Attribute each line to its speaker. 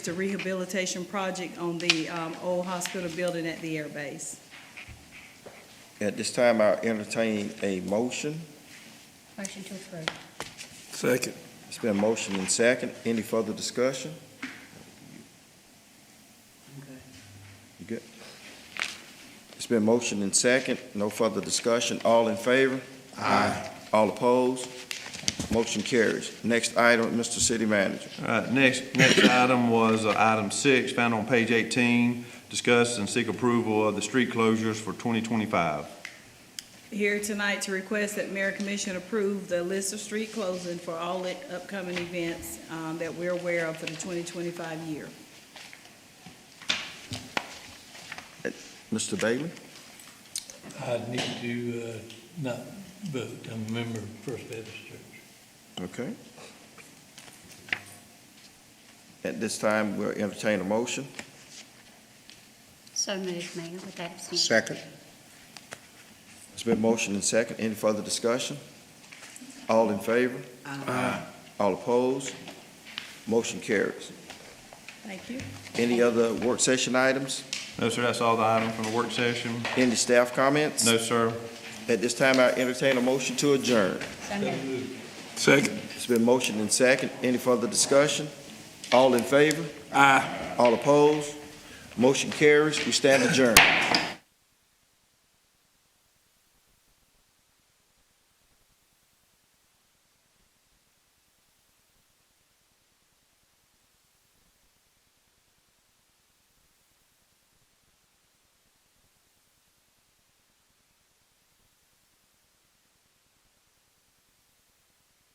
Speaker 1: It's a rehabilitation project on the um, old hospital building at the air base.
Speaker 2: At this time, I entertain a motion.
Speaker 3: Motion to approve.
Speaker 4: Second.
Speaker 2: It's been motion and second. Any further discussion? You good? It's been motion and second. No further discussion. All in favor? Aye. All opposed? Motion carries. Next item, Mr. City Manager.
Speaker 5: All right, next, next item was uh, item six, found on page 18, discuss and seek approval of the street closures for 2025.
Speaker 1: Here tonight to request that Mayor Commission approve the list of street closing for all i- upcoming events um, that we're aware of for the 2025 year.
Speaker 2: Mr. Bailey?
Speaker 6: I need to uh, not vote, I'm a member of First Baptist Church.
Speaker 2: Okay. At this time, we'll entertain a motion.
Speaker 3: So moved, Mayor, with that abstention.
Speaker 7: Second.
Speaker 2: It's been motion and second. Any further discussion? All in favor? All opposed? Motion carries.
Speaker 1: Thank you.
Speaker 2: Any other work session items?
Speaker 5: No, sir, that's all the item from the work session.
Speaker 2: Any staff comments?
Speaker 5: No, sir.
Speaker 2: At this time, I entertain a motion to adjourn.
Speaker 3: So moved.
Speaker 4: Second.
Speaker 2: It's been motion and second. Any further discussion? All in favor?
Speaker 4: Aye.
Speaker 2: All opposed? Motion carries. We stand adjourned.